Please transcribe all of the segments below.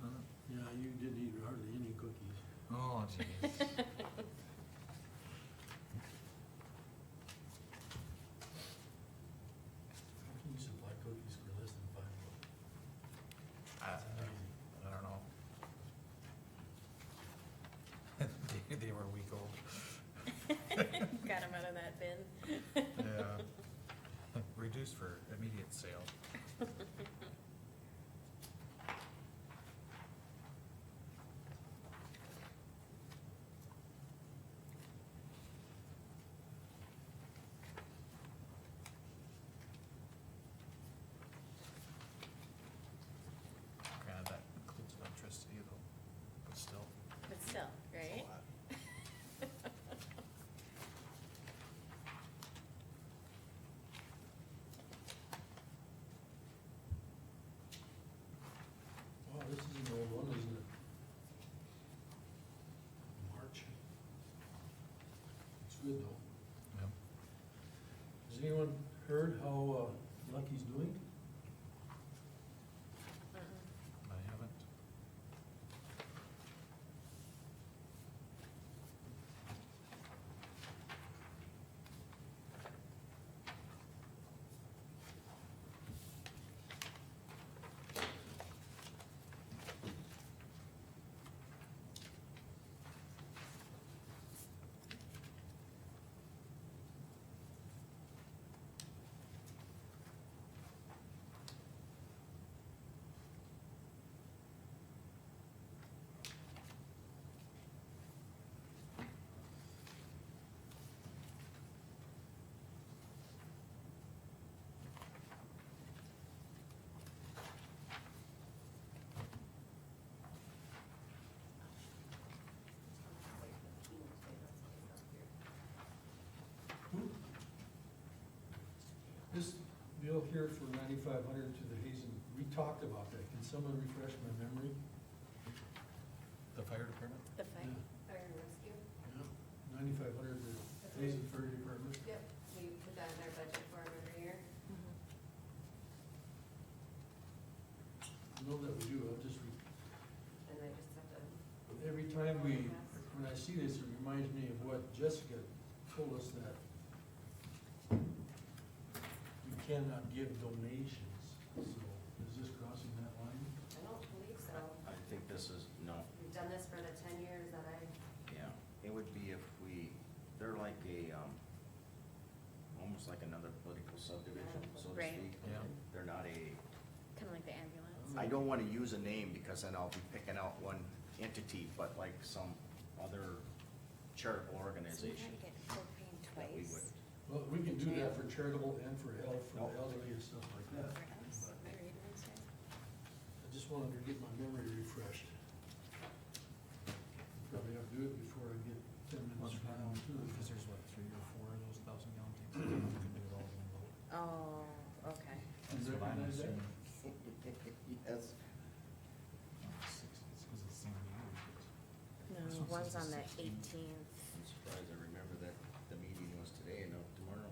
uh, you didn't eat hardly any cookies. Oh, jeez. How can you supply cookies for less than five bucks? I That's amazing. I don't know. They- They were a week old. Got him out of that bin. Yeah. Reduced for immediate sale. Granted, that includes electricity though, but still. But still, it's a right? lot. Wow, this is an old one, isn't it? March. It's good though. Yep. Has anyone heard how uh, Lucky's doing? Mm-mm. I haven't. This bill here for ninety-five hundred to the Hazen, we talked about that. Can someone refresh my memory? The fire department? The fight. Fire and rescue? Ninety-five hundred to the Hazen Fire Department. Yep. We put that in our budget for 'em every year. Mm-hmm. I know that we do, I'll just, re- And I just have to, every time we, when I see this, it reminds me of what Jessica told us that we cannot give donations, so is this crossing that line? I don't believe so. I think this is, no, We've done this for the ten years that I, yeah, it would be if we, they're like a, um, almost like another political subdivision, so to Right. speak. Yeah. They're not a, Kinda like the ambulance. I don't wanna use a name because then I'll be picking out one entity, but like some other charitable Mm-hmm. organization. Get propane that we twice. would- Well, we can do that for charitable and for health, for the elderly and stuff like for that. us. Am I reading this right? I just wanted to get my memory refreshed. Probably have to do it before I get ten minutes from now too. Because there's what, three or four of those thousand gallon tanks? You can do it all in one load. Oh, okay. You That's what I'm recognize that? assuming. Yes, Oh, six, it's 'cause it's the same year. This No, one one's says on the the 16th. eighteenth. I'm surprised I remember that the meeting was today and not tomorrow.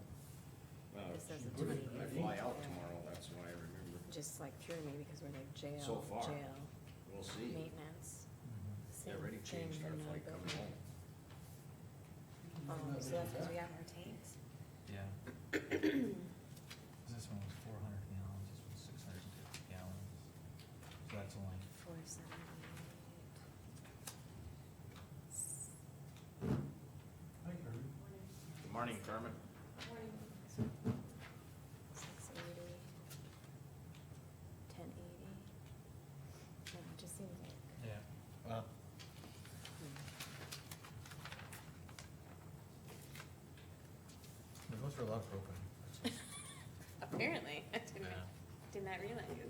Well, This says the put it- I 28th. Uh, fly out tomorrow, that's why I remember. Just like threw me because we're like jail. So far. Jail, We'll see. maintenance. They same already thing, changed our but no flight coming building. home. Oh, so that's because we have our tanks? Yeah. 'Cause this one was four hundred gallons, this one's six hundred and fifty gallons. So that's only, Four seventy-eight. Hi, Carmen. Good morning, Carmen. Six eighty. Ten eighty. Yeah, it just seems like. yeah, well, it goes for a lot of propane. Apparently, I didn't, Yeah. did not realize.